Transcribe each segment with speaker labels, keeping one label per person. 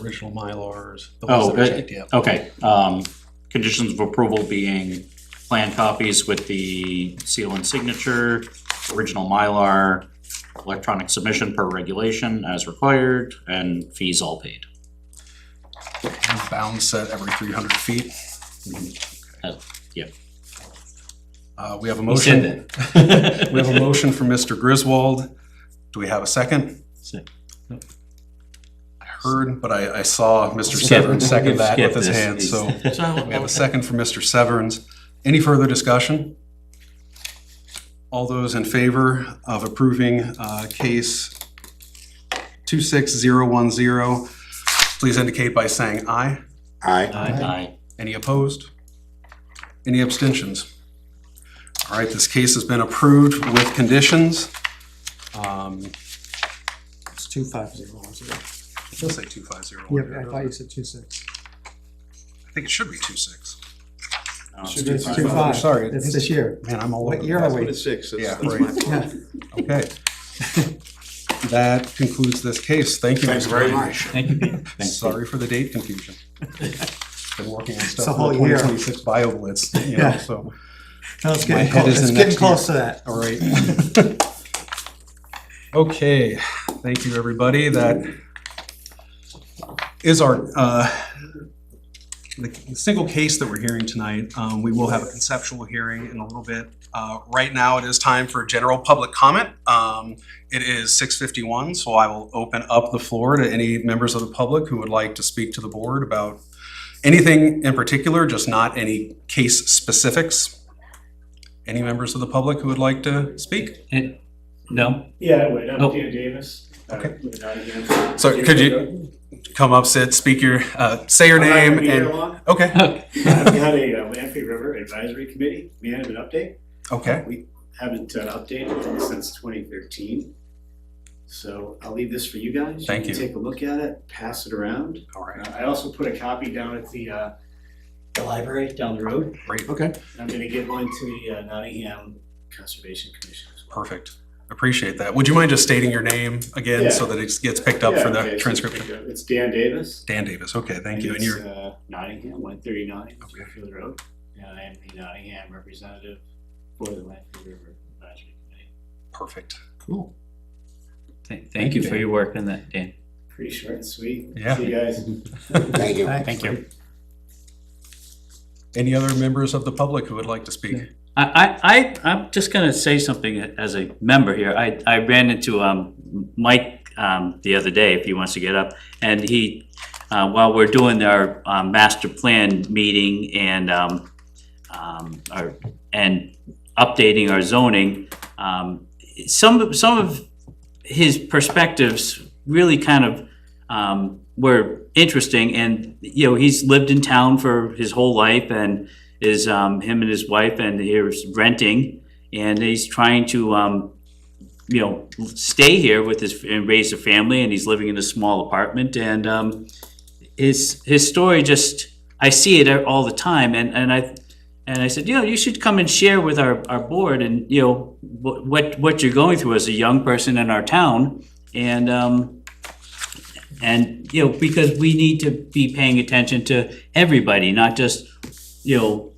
Speaker 1: original Mylars. the
Speaker 2: Oh,
Speaker 1: ones that were
Speaker 2: right.
Speaker 1: checked, yeah.
Speaker 2: Okay, um, conditions of approval being plan copies with the seal and signature, original Mylar, electronic submission per regulation as required, and fees all paid.
Speaker 1: And Bound set every three hundred feet.
Speaker 2: Oh, yeah.
Speaker 1: Uh, we have a
Speaker 3: He said
Speaker 1: motion,
Speaker 3: that.
Speaker 1: we have a motion from Mr. Griswold. Do we have a second?
Speaker 3: Sec-
Speaker 1: I heard, but I, I saw Mr. Severns second that with his
Speaker 3: Skip this.
Speaker 1: hand, so
Speaker 3: He's-
Speaker 1: we have a second from Mr. Severns. Any further discussion? All those in favor of approving, uh, case two six zero one zero, please indicate by saying aye.
Speaker 4: Aye.
Speaker 2: Aye.
Speaker 1: Any opposed? Any abstentions? All right, this case has been approved with conditions. Um,
Speaker 5: It's two five zero one zero.
Speaker 1: I'll say two five zero one
Speaker 5: Yeah, I thought
Speaker 1: zero.
Speaker 5: you said two six.
Speaker 1: I think it should be two six. Oh,
Speaker 2: No, it's
Speaker 5: It's
Speaker 2: fine.
Speaker 5: two five.
Speaker 1: Sorry.
Speaker 5: It's this year.
Speaker 1: Man, I'm all over.
Speaker 5: What
Speaker 1: the
Speaker 5: year
Speaker 1: place.
Speaker 5: are we?
Speaker 4: Six.
Speaker 1: Yeah,
Speaker 4: that's-
Speaker 1: right.
Speaker 5: Yeah.
Speaker 1: Okay. That concludes this case. Thank you.
Speaker 4: Thanks
Speaker 1: Mr.
Speaker 4: very
Speaker 1: Brady.
Speaker 4: much.
Speaker 3: Thank you, Pete.
Speaker 2: Thank you.
Speaker 1: Sorry for the date confusion. Been working on stuff
Speaker 5: a
Speaker 1: for
Speaker 5: whole year.
Speaker 1: 2026 BioBlitz, you know,
Speaker 5: Yeah.
Speaker 1: so,
Speaker 5: No, it's
Speaker 1: My
Speaker 5: getting
Speaker 1: head
Speaker 5: close,
Speaker 1: is in
Speaker 5: it's
Speaker 1: next
Speaker 5: getting
Speaker 1: year.
Speaker 5: close to that.
Speaker 1: all right. Okay, thank you, everybody. That is our, uh, the the single case that we're hearing tonight. Um, We will have a conceptual hearing in a little bit. Uh, Right now, it is time for general public comment. Um, It is 6:51, so I will open up the floor to any members of the public who would like to speak to the board about anything in particular, just not any case specifics. Any members of the public who would like to speak?
Speaker 3: And- No,
Speaker 6: Yeah, I would. I'm
Speaker 3: Oh.
Speaker 6: Dan Davis. Uh,
Speaker 1: Okay.
Speaker 6: with Nottingham.
Speaker 1: So could you come up, sit, speak your, uh, say your
Speaker 6: I'm not
Speaker 1: name
Speaker 6: gonna be here
Speaker 1: and,
Speaker 6: long.
Speaker 1: okay,
Speaker 6: We had a uh, Lamprey River Advisory Committee management update.
Speaker 1: okay.
Speaker 6: We haven't uh, updated since 2013. So I'll leave this for you guys.
Speaker 1: Thank
Speaker 6: can
Speaker 1: you.
Speaker 6: Take a look at it, pass it around.
Speaker 1: All right,
Speaker 6: Uh, I also put a copy down at the, uh, the library down the road.
Speaker 1: great,
Speaker 6: I'm gonna give one to the uh, Nottingham Conservation Commission as well.
Speaker 1: perfect. Appreciate that. Would you mind just stating your name again so that it gets picked up
Speaker 6: Yeah,
Speaker 1: for
Speaker 6: okay,
Speaker 1: the
Speaker 6: so
Speaker 1: transcription?
Speaker 6: It's Dan Davis.
Speaker 1: Dan Davis, okay, thank you. And
Speaker 6: It's,
Speaker 1: you're,
Speaker 6: uh, Nottingham, one thirty-nine,
Speaker 1: Okay.
Speaker 6: Smithfield Road, and I am the Nottingham representative for the Lanford River Advisory Committee.
Speaker 1: perfect.
Speaker 3: cool. Th- Thank you for your work on that, Dan.
Speaker 6: Pretty short and sweet.
Speaker 1: Yeah.
Speaker 6: See you guys.
Speaker 4: Thank you.
Speaker 3: Thank you.
Speaker 1: Any other members of the public who would like to speak?
Speaker 3: I, I, I, I'm just gonna say something as a member here. I, I ran into, um, Mike, um, the other day, if he wants to get up. And he, uh, while we're doing our, um, master plan meeting and, um, um, our, and updating our zoning, um, some, of- some of his perspectives really kind of, um, were interesting. And, you know, he's lived in town for his whole life and, is um, him and his wife, and he's renting, and he's trying to, um, you know, stay here with his and raise a family, and he's living in a small apartment, and um, his his story just I see it all the time, and and I and I said, you know, you should come and share with our our board, and you know, wh- what what you're going through as a young person in our town, and. Um, and you know because we need to be paying attention to everybody not just you know,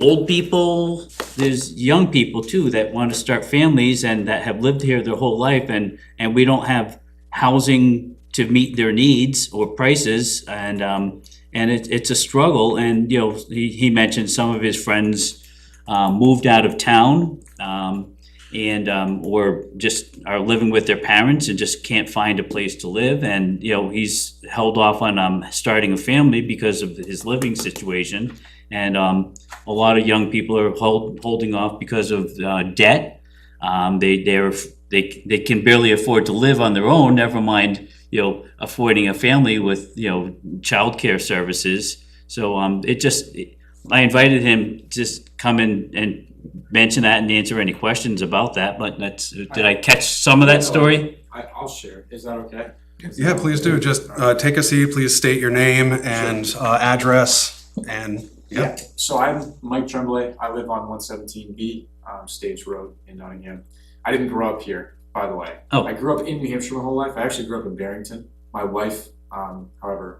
Speaker 3: old people, there's young people too that want to start families and that have lived here their whole life and, and we don't have housing to meet their needs or prices and, um, and it, it's a struggle and, you know, he, he mentioned some of his friends, um, moved out of town, um, and, um, or just are living with their parents and just can't find a place to live and, you know, he's held off on, um, starting a family because of his living situation. And, um, a lot of young people are hold, holding off because of, uh, debt. Um, they, they're, they, they can barely afford to live on their own, never mind, you know, affording a family with, you know, childcare services. So, um, it just, I invited him to just come in and mention that and answer any questions about that, but that's, did I catch some of that story?
Speaker 7: I, I'll share. Is that okay?
Speaker 1: Yeah, please do. Just, uh, take a seat, please state your name and, uh, address and, yeah.
Speaker 7: So I'm Mike Tremblay. I live on one seventeen B, um, Stage Road in Nottingham. I didn't grow up here, by the way.
Speaker 3: Oh.
Speaker 7: I grew up in New Hampshire my whole life. I actually grew up in Barrington. My wife Um, however,